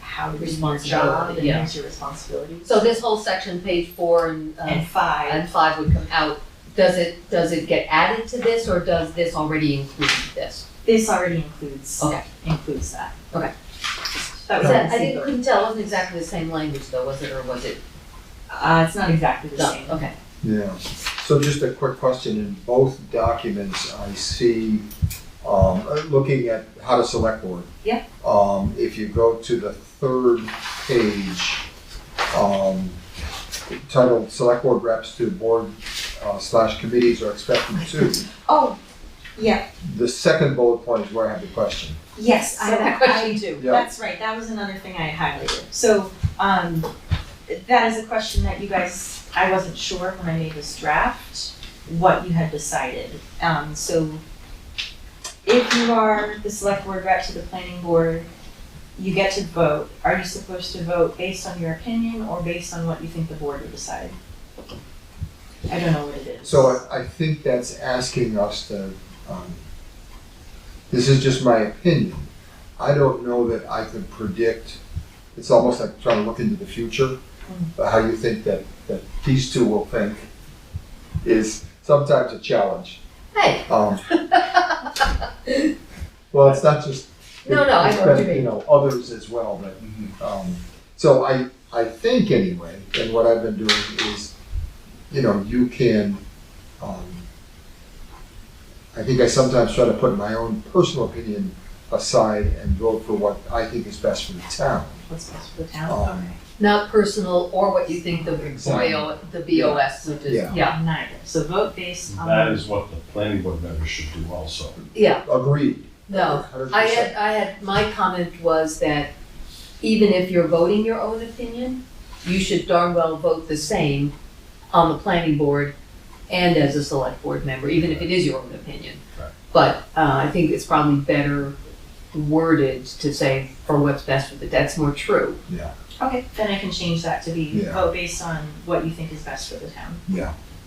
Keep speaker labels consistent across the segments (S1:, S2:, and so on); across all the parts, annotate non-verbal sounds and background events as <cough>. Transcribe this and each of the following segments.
S1: how to do your job
S2: Responsibility,
S1: and
S2: yeah.
S1: what's your responsibilities. Um,
S2: So this whole section, page four and, uh,
S1: And five,
S2: and five would come out. Does it, does it get added to this or does this already include this?
S1: this already includes,
S2: Okay.
S1: includes that.
S2: Okay.
S1: That was
S2: Is that-
S1: in
S2: I didn't,
S1: single.
S2: couldn't tell, it wasn't exactly the same language though, was it, or was it
S1: Uh, it's not exactly the
S2: done?
S1: same.
S2: Okay.
S3: Yeah, so just a quick question, in both documents, I see, um, uh, looking at how to select board.
S1: Yeah.
S3: Um, if you go to the third page, um, titled Select Board Reps to Board uh, slash Committees are expected to,
S1: Oh, yeah,
S3: the second bullet point is where I have the question.
S1: yes, I
S2: So
S1: have
S2: that question too.
S3: Yeah.
S1: That's right, that was another thing I highlighted. So, um, that is a question that you guys, I wasn't sure when I made this draft, what you had decided. Um, so if you are the select board rep to the planning board, you get to vote. Are you supposed to vote based on your opinion or based on what you think the board would decide? I don't know what it is.
S3: So I, I think that's asking us to, um, this is just my opinion. I don't know that I could predict, it's almost like trying to look into the future, but how you think that, that these two will think is sometimes a challenge.
S2: Hey,
S3: Um, Well, it's not just.
S2: <laughs> No, no, I know what you mean.
S3: You know, others as well, but um, so I, I think anyway, and what I've been doing is, you know, you can, um, I think I sometimes try to put my own personal opinion aside and vote for what I think is best for the town.
S1: What's best for the town?
S3: Um,
S2: not personal or what you think the
S3: Exactly.
S2: BO, the BOS would do.
S3: Yeah.
S2: Yeah,
S1: Neither. So vote based
S2: Um,
S1: on.
S4: That is what the planning board members should do also.
S2: yeah,
S3: Agreed.
S2: no. I uh, had, I had, my comment was that even if you're voting your own opinion, you should darn well vote the same on the planning board and as a select board member, even if it is your own opinion.
S4: Right.
S2: But, uh, I think it's probably better worded to say for what's best for the, that's more true.
S1: Okay, then I can change that to be
S3: Yeah.
S1: vote based on what you think is best for the town.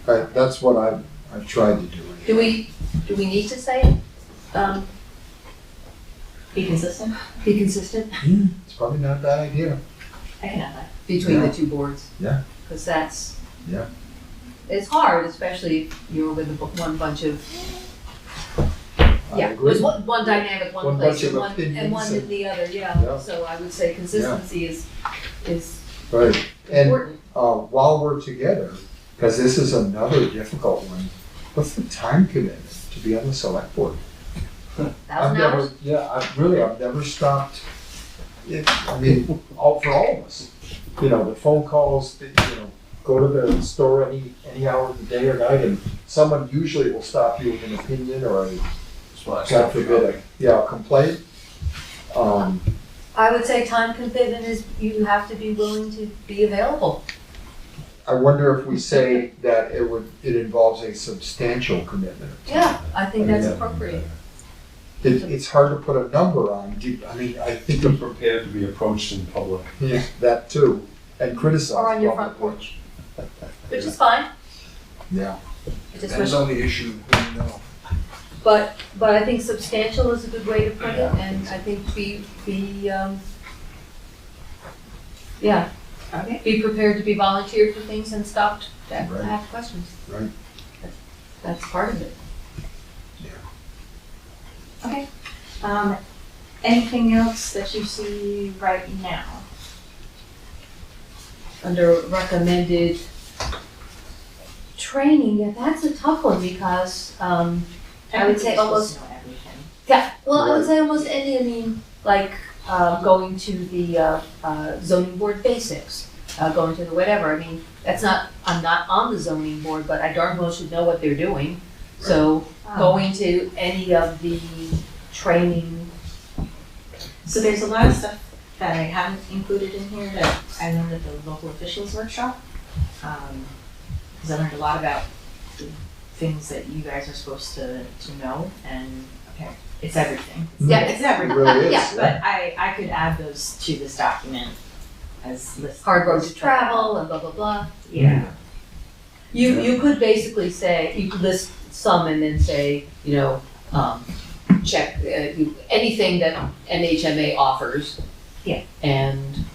S3: I- That's what I've, I've tried to do.
S2: Do we, do we need to say it? Um,
S1: Be consistent,
S2: be consistent
S3: It's probably not a bad idea.
S1: I can add that.
S2: between the
S3: Yeah.
S2: two boards?
S3: Yeah.
S2: Cause that's.
S3: Yeah.
S2: It's hard, especially if you're with a bu- one bunch of
S3: I
S2: Yeah,
S3: agree.
S2: there's one, one dynamic,
S3: One
S2: one place,
S3: bunch of
S2: and one, and
S3: opinions
S2: one
S3: and-
S2: in the other,
S3: Yeah.
S2: yeah, so I would say consistency is, is
S3: Right, and
S2: important.
S3: uh, while we're together, because this is another difficult one, what's the time commitment to be on the select board? I've
S2: Thousand hours,
S3: never, yeah, I've really, I've never stopped, it, I mean, all, for all of us. You know, the phone calls, the, you know, go to the store any, any hour of the day or night, and someone usually will stop you with an opinion or a,
S4: That's why I
S3: God
S4: stopped
S3: forbid, a, yeah, a complaint. Um,
S2: I would say time commitment is, you have to be willing to be available.
S3: I wonder if we say that it would, it involves a substantial commitment.
S2: Yeah, I think that's
S3: Yeah.
S2: appropriate.
S3: It, it's hard to put a number on, do, I mean, I think
S4: Be prepared to be approached in public.
S3: Yeah, that too, and criticize.
S2: Or on your front porch, which is fine.
S3: Yeah.
S2: I just wish-
S3: uh,
S5: Depends on the issue, you know.
S2: But, but I think substantial is a good way to put it, and I think be, be, um, yeah,
S1: Okay.
S2: be prepared to be volunteered for things and stopped to
S3: Right.
S2: have questions.
S3: Right.
S2: That's- That's part of it.
S1: Um, anything else that you see right now?
S2: under recommended training, yeah, that's a tough one because, um, I would say
S1: Everybody's
S2: almost-
S1: supposed to know everything.
S2: yeah, well, I would
S3: Right.
S2: say almost any, I mean, like, uh, going to the, uh, uh, zoning board basics, uh, going to the whatever, I mean, that's not, I'm not on the zoning board, but I darn well should know what they're doing. So
S1: Um,
S2: going to any of the training,
S1: So there's a lot of stuff that I haven't included in here that I learned at the local officials workshop. Um, cause I learned a lot about the things that you guys are supposed to, to know and, okay, it's everything.
S2: Yeah,
S1: It's
S3: It
S1: everything.
S3: really is,
S2: Yeah,
S3: yeah.
S1: But I, I could add those to this document as lists.
S2: hard road to travel and blah, blah, blah.
S1: Yeah.
S2: You, you could basically say, you could list some and then say, you know, um, check, uh, you- anything that NHMA offers,
S1: Yeah.
S2: And